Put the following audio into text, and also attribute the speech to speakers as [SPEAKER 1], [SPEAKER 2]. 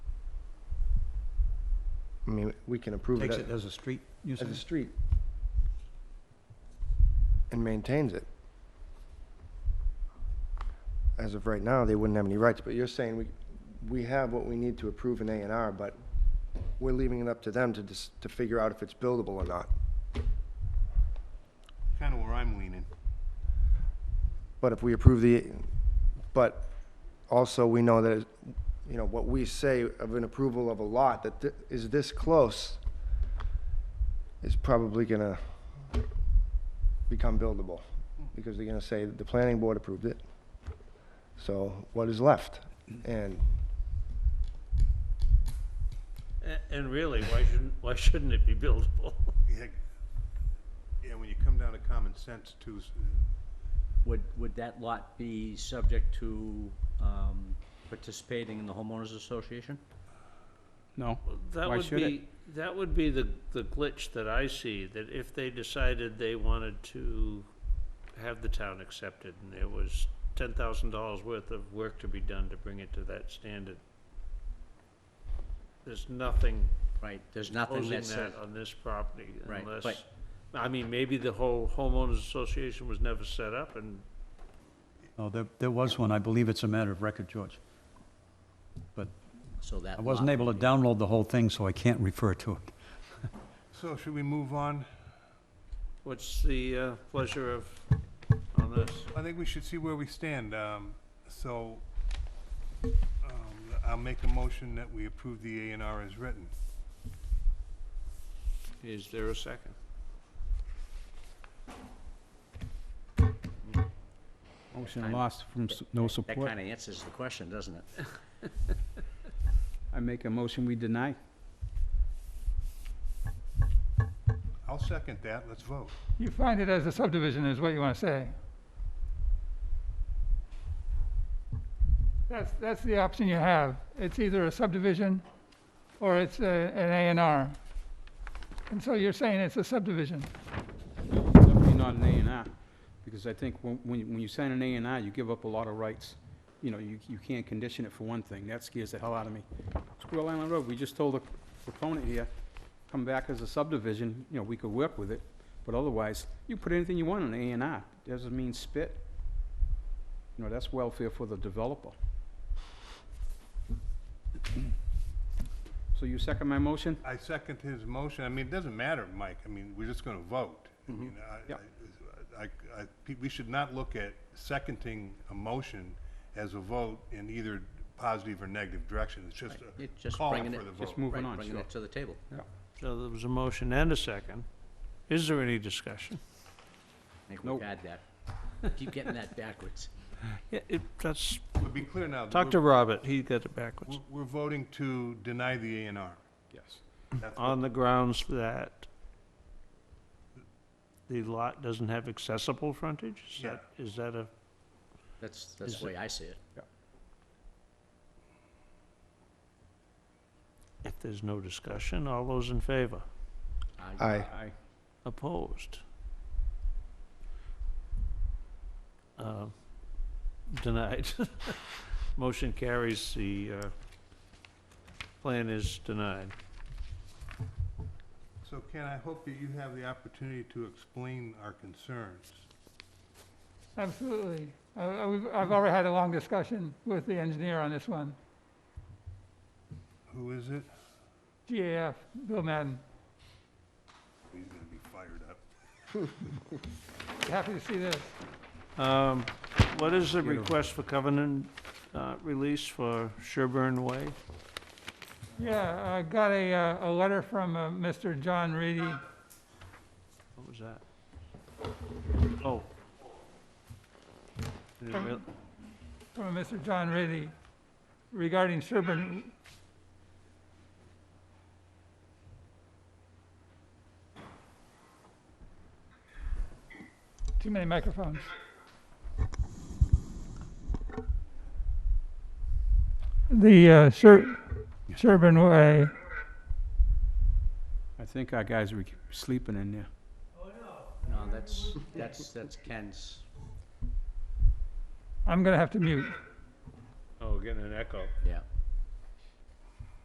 [SPEAKER 1] I mean, we can approve it
[SPEAKER 2] Takes
[SPEAKER 1] as
[SPEAKER 2] it as a street, you
[SPEAKER 1] as
[SPEAKER 2] said?
[SPEAKER 1] a street and maintains it. As of right now, they wouldn't have any rights, but you're saying we, we have what we need to approve an A and R, but we're leaving it up to them to dis to figure out if it's buildable or not.
[SPEAKER 3] Kind of where I'm leaning.
[SPEAKER 1] But if we approve the, but also we know that, you know, what we say of an approval of a lot that thi- is this close is probably gonna become buildable, because they're gonna say the planning board approved it. So what is left? And
[SPEAKER 4] A- And really, why shouldn't, why shouldn't it be buildable?
[SPEAKER 3] Yeah, yeah, when you come down to common sense too, s-
[SPEAKER 5] Would, would that lot be subject to um, participating in the homeowners association?
[SPEAKER 6] No.
[SPEAKER 4] That
[SPEAKER 6] Why
[SPEAKER 4] would
[SPEAKER 6] should it?
[SPEAKER 4] be, that would be the, the glitch that I see, that if they decided they wanted to have the town accepted and there was ten thousand dollars worth of work to be done to bring it to that standard. There's nothing
[SPEAKER 5] Right, there's nothing
[SPEAKER 4] closing
[SPEAKER 5] that says,
[SPEAKER 4] that on this property
[SPEAKER 5] Right,
[SPEAKER 4] unless,
[SPEAKER 5] but-
[SPEAKER 4] I mean, maybe the whole homeowners association was never set up and
[SPEAKER 2] No, there, there was one. I believe it's a matter of record, George.
[SPEAKER 5] so that.
[SPEAKER 2] I wasn't
[SPEAKER 5] lot
[SPEAKER 2] able to
[SPEAKER 5] would be-
[SPEAKER 2] download the whole thing, so I can't refer to it.
[SPEAKER 3] so should we move on?
[SPEAKER 4] what's the uh, pleasure of, on this?
[SPEAKER 3] I think we should see where we stand, um, so, um, I'll make a motion that we approve the A and R as written.
[SPEAKER 4] Is there a second?
[SPEAKER 6] Motion
[SPEAKER 5] Kinda.
[SPEAKER 6] lost from s- no
[SPEAKER 5] That
[SPEAKER 6] support.
[SPEAKER 5] kind of answers the question, doesn't it?
[SPEAKER 6] I make a motion, we deny.
[SPEAKER 3] I'll second that, let's vote.
[SPEAKER 7] You find it as a subdivision is what you want to say. That's, that's the option you have. It's either a subdivision or it's a, an A and R. And so you're saying it's a subdivision.
[SPEAKER 6] Definitely not an A and R, because I think when, when you- when you sign an A and R, you give up a lot of rights. You know, you, you can't condition it for one thing. That scares the hell out of me. Squirrel Island Road, we just told the proponent here, come back as a subdivision, you know, we could work with it, but otherwise, you put anything you want on an A and R. Doesn't mean spit. You know, that's welfare for the developer. So you second my motion?
[SPEAKER 3] I second his motion, I mean, it doesn't matter, Mike, I mean, we're just gonna vote. I mean, I-
[SPEAKER 6] Yeah.
[SPEAKER 3] I, I, I- we should not look at seconding a motion as a vote in either positive or negative direction, it's just
[SPEAKER 5] Right, it's
[SPEAKER 3] a
[SPEAKER 5] just
[SPEAKER 3] call for
[SPEAKER 5] bringing it-
[SPEAKER 3] the vote.
[SPEAKER 6] Just moving
[SPEAKER 5] Right,
[SPEAKER 6] on,
[SPEAKER 5] bringing
[SPEAKER 6] sure.
[SPEAKER 5] it to the table.
[SPEAKER 4] So there was a motion and a second. Is there any discussion?
[SPEAKER 5] I think
[SPEAKER 6] Nope.
[SPEAKER 5] we've had that. Keep getting that backwards.
[SPEAKER 4] Yeah, it, that's,
[SPEAKER 3] To be clear now,
[SPEAKER 4] talk to
[SPEAKER 3] we're-
[SPEAKER 4] Robert, he got it backwards.
[SPEAKER 3] we're, we're voting to deny the A and R.
[SPEAKER 6] Yes.
[SPEAKER 3] That's what-
[SPEAKER 4] On the grounds that the lot doesn't have accessible frontage? Is that, is that a,
[SPEAKER 5] That's, that's
[SPEAKER 4] Is
[SPEAKER 5] the way I see it.
[SPEAKER 4] if there's no discussion, all those in favor?
[SPEAKER 5] I-
[SPEAKER 1] I,
[SPEAKER 6] Aye.
[SPEAKER 4] Opposed? Uh, Denied. Motion carries, the, uh, plan is denied.
[SPEAKER 3] So Ken, I hope that you have the opportunity to explain our concerns.
[SPEAKER 7] Absolutely. I, I- we've, I've already had a long discussion with the engineer on this one,
[SPEAKER 3] Who is it?
[SPEAKER 7] GAF, Bill Madden.
[SPEAKER 3] He's gonna be fired up.
[SPEAKER 7] Happy to see this.
[SPEAKER 4] Um, What is the
[SPEAKER 6] Beautiful.
[SPEAKER 4] request for covenant uh, release for Sherburne Way?
[SPEAKER 7] Yeah, I got a, uh, a letter from uh, Mr. John Reedy.
[SPEAKER 4] What was that? Oh. I didn't
[SPEAKER 7] Um,
[SPEAKER 4] real-
[SPEAKER 7] from Mr. John Reedy regarding Sherburne. Too many microphones. The uh, Sher- Sherburne Way,
[SPEAKER 6] I think our guys were sleeping in there.
[SPEAKER 5] No, that's, that's, that's Ken's.
[SPEAKER 7] I'm gonna have to mute.
[SPEAKER 4] Oh, getting an echo.
[SPEAKER 5] Yeah.